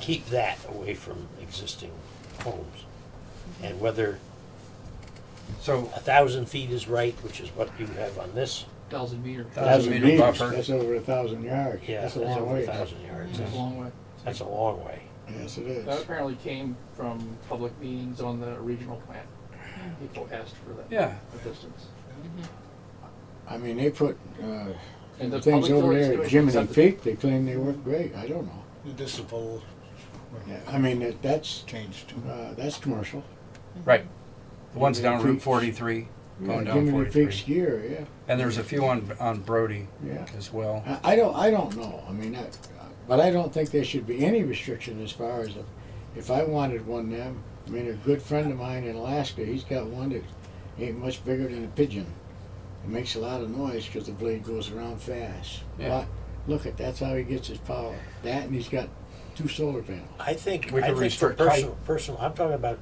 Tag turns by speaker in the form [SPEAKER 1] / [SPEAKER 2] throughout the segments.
[SPEAKER 1] keep that away from existing homes. And whether
[SPEAKER 2] So,
[SPEAKER 1] a thousand feet is right, which is what you have on this,
[SPEAKER 3] thousand meter.
[SPEAKER 2] Thousand meter
[SPEAKER 4] meters,
[SPEAKER 2] buffer.
[SPEAKER 4] That's over a thousand yards.
[SPEAKER 1] yeah,
[SPEAKER 4] That's
[SPEAKER 1] that's
[SPEAKER 4] a long
[SPEAKER 1] over a
[SPEAKER 4] way.
[SPEAKER 1] thousand yards.
[SPEAKER 3] It's a long way.
[SPEAKER 1] That's a long way.
[SPEAKER 4] Yes, it
[SPEAKER 3] That
[SPEAKER 4] is.
[SPEAKER 3] apparently came from public meetings on the regional plan. People asked for that.
[SPEAKER 2] yeah,
[SPEAKER 3] The distance.
[SPEAKER 4] I mean, they put, uh,
[SPEAKER 3] And the
[SPEAKER 4] things
[SPEAKER 3] public
[SPEAKER 4] over
[SPEAKER 3] utilities
[SPEAKER 4] there at
[SPEAKER 3] commission
[SPEAKER 4] Jiminy
[SPEAKER 3] accepted-
[SPEAKER 4] Peak, they claim they work great. I don't know.
[SPEAKER 5] This is old,
[SPEAKER 4] Yeah, I mean, that- that's,
[SPEAKER 5] changed to
[SPEAKER 4] uh, that's commercial.
[SPEAKER 2] right. The ones down Route
[SPEAKER 4] Peaks.
[SPEAKER 2] forty-three,
[SPEAKER 4] Yeah,
[SPEAKER 2] going down
[SPEAKER 4] Uh, Jiminy Peak's
[SPEAKER 2] forty-three.
[SPEAKER 4] gear, yeah,
[SPEAKER 2] And there's a few on, on Brody
[SPEAKER 4] yeah.
[SPEAKER 2] as well.
[SPEAKER 4] I, I don't, I don't know. I mean, I, but I don't think there should be any restriction as far as, if- if I wanted one now, I mean, a good friend of mine in Alaska, he's got one that ain't much bigger than a pigeon. It makes a lot of noise because the blade goes around fast.
[SPEAKER 2] Yeah.
[SPEAKER 4] But, look at, that's how he gets his power. That and he's got two solar panels.
[SPEAKER 1] I think,
[SPEAKER 2] We
[SPEAKER 1] I
[SPEAKER 2] could
[SPEAKER 1] think for
[SPEAKER 2] restrict height.
[SPEAKER 1] personal, personal, I'm talking about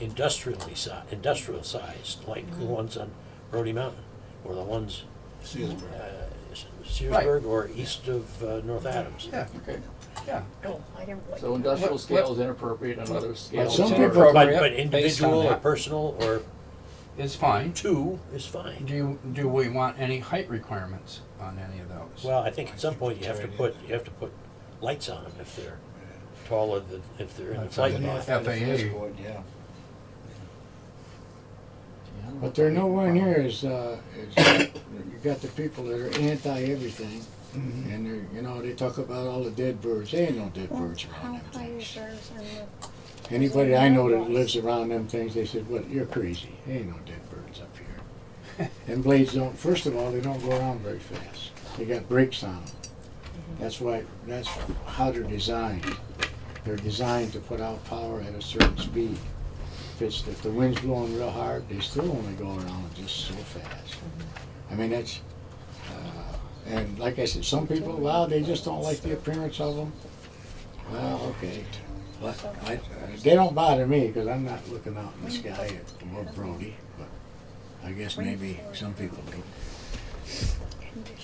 [SPEAKER 1] industrially si, industrial sized, like the ones on Brody Mountain, or the ones, uh,
[SPEAKER 5] Searsburg.
[SPEAKER 1] Searsburg or east of uh, North Adams.
[SPEAKER 2] Yeah.
[SPEAKER 3] Okay,
[SPEAKER 6] I don't like
[SPEAKER 3] so
[SPEAKER 6] that.
[SPEAKER 3] industrial
[SPEAKER 2] What-
[SPEAKER 3] scale is inappropriate and other
[SPEAKER 4] Well,
[SPEAKER 3] scales
[SPEAKER 4] some
[SPEAKER 2] It's
[SPEAKER 3] are.
[SPEAKER 4] people-
[SPEAKER 1] But, but
[SPEAKER 2] appropriate based on
[SPEAKER 1] individual or
[SPEAKER 2] that.
[SPEAKER 1] personal or
[SPEAKER 2] It's fine.
[SPEAKER 1] two is fine.
[SPEAKER 2] Do you, do we want any height requirements on any of those?
[SPEAKER 1] Well, I think at some point you have to put, you have to put lights on them if they're taller than, if they're in the flight
[SPEAKER 5] The
[SPEAKER 1] path.
[SPEAKER 5] North End of
[SPEAKER 2] FAA.
[SPEAKER 5] Searsburg, yeah.
[SPEAKER 4] But they're nowhere near as, uh, as, you got the people that are anti-everything, and they're, you know, they talk about all the dead birds, there ain't no dead
[SPEAKER 6] Well,
[SPEAKER 4] birds around
[SPEAKER 6] How
[SPEAKER 4] them
[SPEAKER 6] high is
[SPEAKER 4] things.
[SPEAKER 6] yours on the,
[SPEAKER 4] Anybody I know that lives around them things, they said, what, you're crazy, there ain't no dead birds up here. And blades don't, first of all, they don't go around very fast, they got brakes on them. That's why, that's how they're designed, they're designed to put out power at a certain speed. If it's, if the wind's blowing real hard, they still only go around just so fast. I mean, that's, uh, and like I said, some people, wow, they just don't like the appearance of them. Well, okay. But I, I- they don't bother me, cause I'm not looking out in the sky at, or Brody, but I guess maybe some people do.
[SPEAKER 6] condition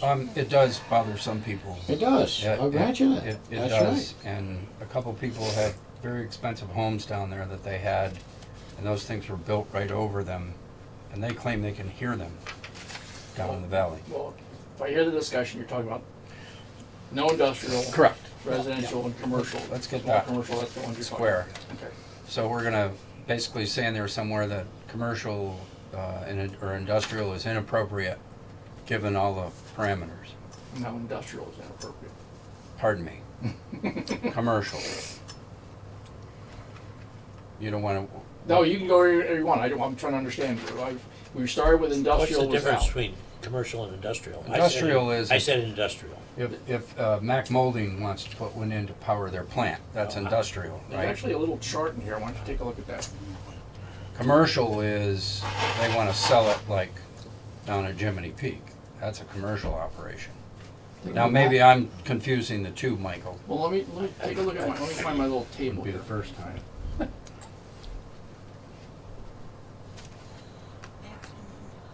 [SPEAKER 2] Um,
[SPEAKER 6] of-
[SPEAKER 2] it does bother some people.
[SPEAKER 4] It does,
[SPEAKER 2] It-
[SPEAKER 4] I'll grant you
[SPEAKER 2] It,
[SPEAKER 4] that,
[SPEAKER 2] it
[SPEAKER 4] that's
[SPEAKER 2] does,
[SPEAKER 4] right.
[SPEAKER 2] and a couple people have very expensive homes down there that they had, and those things were built right over them, and they claim they can hear them down in the valley.
[SPEAKER 3] Well, if I hear the discussion, you're talking about no industrial,
[SPEAKER 2] Correct.
[SPEAKER 3] residential and commercial.
[SPEAKER 2] Let's get
[SPEAKER 3] Small
[SPEAKER 2] that
[SPEAKER 3] Commercial, that's the one you're talking
[SPEAKER 2] Square.
[SPEAKER 3] about. Okay.
[SPEAKER 2] So we're gonna basically say in there somewhere that commercial, uh, in- or industrial is inappropriate, given all the parameters.
[SPEAKER 3] No, industrial is inappropriate.
[SPEAKER 2] Pardon me. Commercial. You don't wanna,
[SPEAKER 3] No, you can go wherever you want, I don't, I'm trying to understand. I- We started with
[SPEAKER 1] What's the
[SPEAKER 3] industrial was
[SPEAKER 1] difference
[SPEAKER 3] out.
[SPEAKER 1] between commercial and industrial? I said-
[SPEAKER 2] Industrial is-
[SPEAKER 1] I said industrial.
[SPEAKER 2] If, if uh, Mac Molding wants to put one in to power their plant, that's industrial,
[SPEAKER 3] There's
[SPEAKER 2] right?
[SPEAKER 3] actually a little chart in here, why don't you take a look at that?
[SPEAKER 2] Commercial is, they want to sell it like down at Jiminy Peak. That's a commercial operation. Now, maybe I'm confusing the two, Michael.
[SPEAKER 3] Well, let me, let me take a look at my, let me find my little table
[SPEAKER 2] Wouldn't be
[SPEAKER 3] here.
[SPEAKER 2] the first time.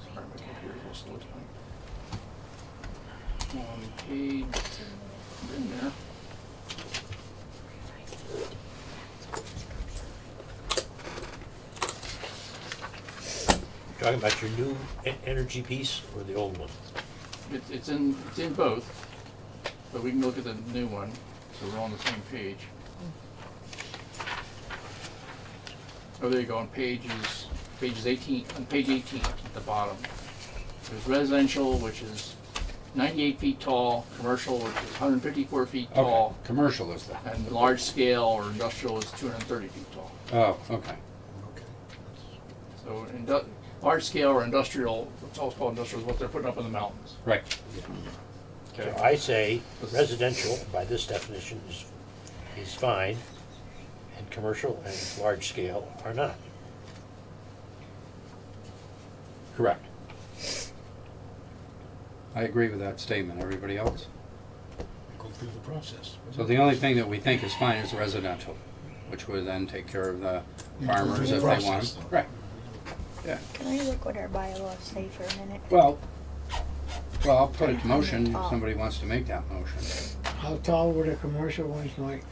[SPEAKER 3] Sorry, my computer's a little slow tonight. On page, in there.
[SPEAKER 1] Talking about your new e- energy piece or the old one?
[SPEAKER 3] It's, it's in, it's in both, but we can look at the new one, so we're on the same page. Oh, there you go, on pages, pages eighteen, on page eighteen at the bottom. There's residential, which is ninety-eight feet tall, commercial, which is hundred and fifty-four feet
[SPEAKER 2] Okay,
[SPEAKER 3] tall,
[SPEAKER 2] commercial is that.
[SPEAKER 3] and large scale or industrial is two hundred and thirty feet tall.
[SPEAKER 2] Oh, okay.
[SPEAKER 3] So indu- large scale or industrial, it's also called industrial, is what they're putting up in the mountains.
[SPEAKER 2] Right.
[SPEAKER 1] So I say residential, by this definition, is, is fine, and commercial and large scale are not.
[SPEAKER 2] Correct. I agree with that statement. Everybody else?
[SPEAKER 5] Go through the process.
[SPEAKER 2] So the only thing that we think is fine is residential, which would then take care of the farmers if they want.
[SPEAKER 5] Process,
[SPEAKER 2] them.
[SPEAKER 5] though.
[SPEAKER 2] Right,
[SPEAKER 6] Can I look what our bylaws say for a minute?
[SPEAKER 2] well, well, I'll put it to motion if somebody wants to make that motion.
[SPEAKER 4] How tall were the commercial ones, Mike?